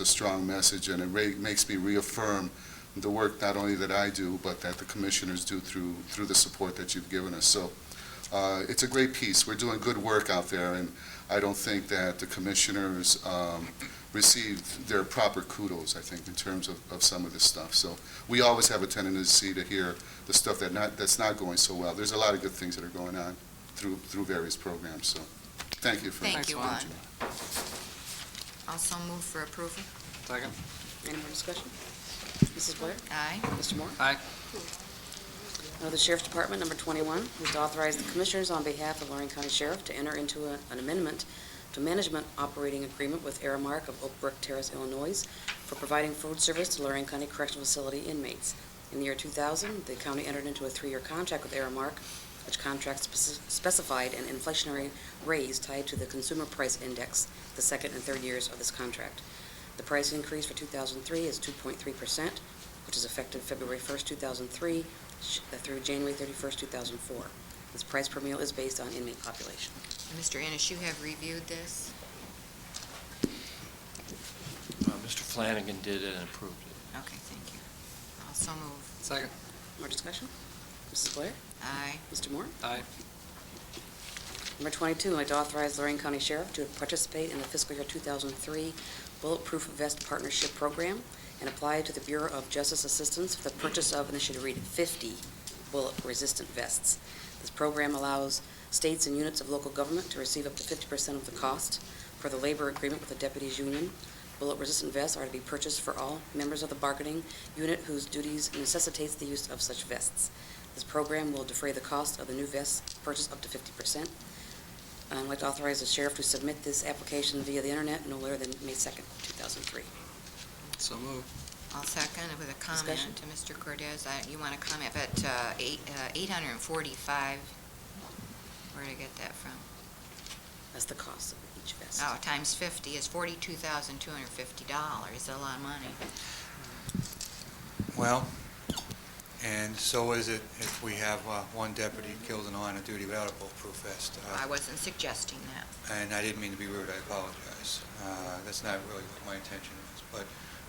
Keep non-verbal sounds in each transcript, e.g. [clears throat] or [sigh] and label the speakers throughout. Speaker 1: a strong message, and it re- makes me reaffirm the work not only that I do, but that the commissioners do through, through the support that you've given us. So uh, it's a great piece. We're doing good work out there, and I don't think that the commissioners um, received their proper kudos, I think, in terms of, of some of this stuff. So we always have a tendency to hear the stuff that not, that's not going so well. There's a lot of good things that are going on through, through various programs, so thank you for.
Speaker 2: Thank you, Juan.
Speaker 1: Thank you.
Speaker 2: Also move for approval.
Speaker 3: Second.
Speaker 4: Any more discussion? Mrs. Blair?
Speaker 2: Aye.
Speaker 4: Mr. Moore?
Speaker 3: Aye.
Speaker 4: Now, the Sheriff's Department, number 21, is to authorize the Commissioners on behalf of Lorraine County Sheriff to enter into a- an amendment to management operating agreement with Aramark of Oak Brook Terrace, Illinois, for providing food service to Lorraine County Correctional Facility inmates. In the year 2000, the county entered into a three-year contract with Aramark, which contract speci- specified an inflationary raise tied to the Consumer Price Index, the second and third years of this contract. The price increase for 2003 is 2.3%, which is effective February 1st, 2003, sh- uh, through January 31st, 2004. This price per meal is based on inmate population.
Speaker 2: Mr. Ennis, you have reviewed this.
Speaker 5: Uh, Mr. Flanagan did it and approved it.
Speaker 2: Okay, thank you. Also move.
Speaker 3: Second.
Speaker 4: More discussion? Mrs. Blair?
Speaker 2: Aye.
Speaker 4: Mr. Moore?
Speaker 3: Aye.
Speaker 4: Number 22, I'd like to authorize Lorraine County Sheriff to participate in the fiscal year 2003 Bulletproof Vest Partnership Program and apply to the Bureau of Justice Assistance for the purchase of, and this should read, 50 bullet-resistant vests. This program allows states and units of local government to receive up to 50% of the cost for the labor agreement with the deputies union. Bullet-resistant vests are to be purchased for all members of the bargaining unit whose duties necessitates the use of such vests. This program will defray the cost of the new vests purchased up to 50%. I'd like to authorize the sheriff to submit this application via the internet no later than May 2nd, 2003.
Speaker 3: So moved.
Speaker 2: I'll second with a comment
Speaker 4: Discussion?
Speaker 2: to Mr. Cordez. I- You want to comment, but uh, eight uh, 845, where did I get that from?
Speaker 4: That's the cost of each vest.
Speaker 2: Oh, times 50 is $42,250. That's a lot of money.
Speaker 6: Well, and so is it if we have uh, one deputy killed in line of duty without a bulletproof vest. Uh,
Speaker 2: I wasn't suggesting that.
Speaker 6: And I didn't mean to be rude, I apologize. Uh, That's not really what my intention was. But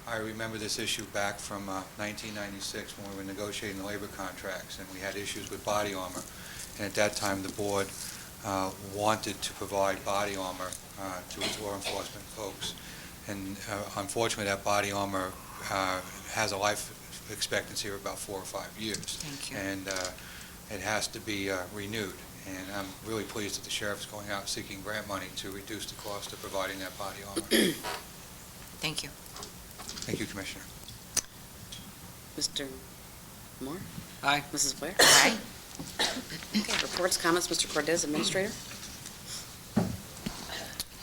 Speaker 6: I remember this issue back from uh, 1996 when we were negotiating the labor contracts and we had issues with body armor. And at that time, the board uh, wanted to provide body armor uh, to its law enforcement folks. And uh, unfortunately, that body armor uh, has a life expectancy of about four or five years
Speaker 2: Thank you.
Speaker 6: and uh, it has to be uh, renewed. And I'm really pleased that the sheriff's going out seeking grant money to reduce the cost of providing that body
Speaker 2: [clears throat]
Speaker 6: armor.
Speaker 2: Thank you.
Speaker 6: Thank you, Commissioner.
Speaker 4: Mr. Moore?
Speaker 3: Aye.
Speaker 4: Mrs. Blair?
Speaker 2: Aye.
Speaker 4: Okay, reports, comments, Mr. Cortez, Administrator?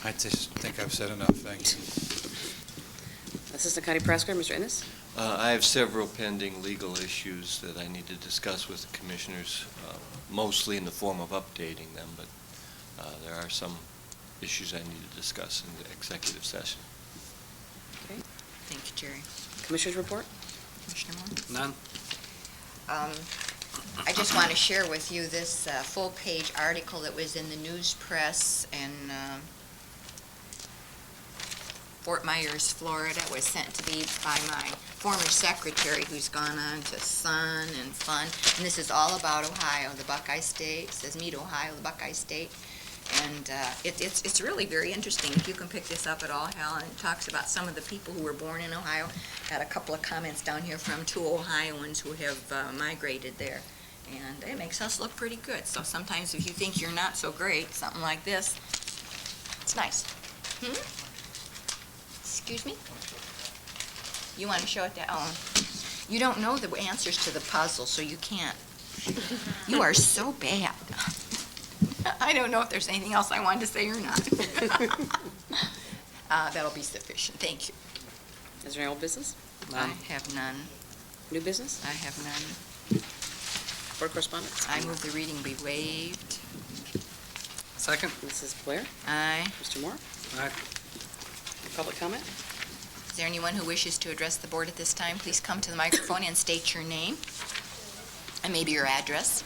Speaker 6: I just think I've said enough, thank you.
Speaker 4: Assistant County Prosecutor, Mr. Ennis?
Speaker 5: Uh, I have several pending legal issues that I need to discuss with the commissioners, uh, mostly in the form of updating them, but uh, there are some issues I need to discuss in the executive session.
Speaker 4: Okay.
Speaker 2: Thank you, Jerry.
Speaker 4: Commissioners report?
Speaker 2: Commissioner Moore?
Speaker 3: None.
Speaker 2: Um, I just want to share with you this uh, full-page article that was in the news press in um, Fort Myers, Florida, was sent to me by my former secretary, who's gone on to Sun and Fun. And this is all about Ohio, the Buckeye State, It says Meet Ohio, the Buckeye State. And uh, it- it's it's really very interesting, if you can pick this up at all, Hal, and it talks about some of the people who were born in Ohio got a couple of comments down here from two Ohioans who have uh, migrated there. And it makes us look pretty good. So sometimes if you think you're not so great, something like this, it's nice. Hmm? Excuse me? You want to show it to Ellen? You don't know the answers to the puzzle, so you can't. You are so bad. [laughs] I don't know if there's anything else I wanted to say or not. [laughs] Uh, That'll be sufficient. Thank you.
Speaker 4: Is there any old business?
Speaker 2: I
Speaker 3: None.
Speaker 2: have none.
Speaker 4: New business?
Speaker 2: I have none.
Speaker 4: Board correspondence?
Speaker 2: I move the reading be waived.
Speaker 3: Second.
Speaker 4: Mrs. Blair?
Speaker 2: Aye.
Speaker 4: Mr. Moore?
Speaker 3: Aye.
Speaker 4: Public comment?
Speaker 2: Is there anyone who wishes to address the board at this time? Please come to the microphone and state your name and maybe your address.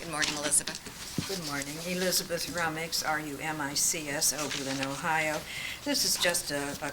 Speaker 2: Good morning, Elizabeth.
Speaker 7: Good morning. Elizabeth Rumics, R-U-M-I-C-S, Oberlin, Ohio. This is just a a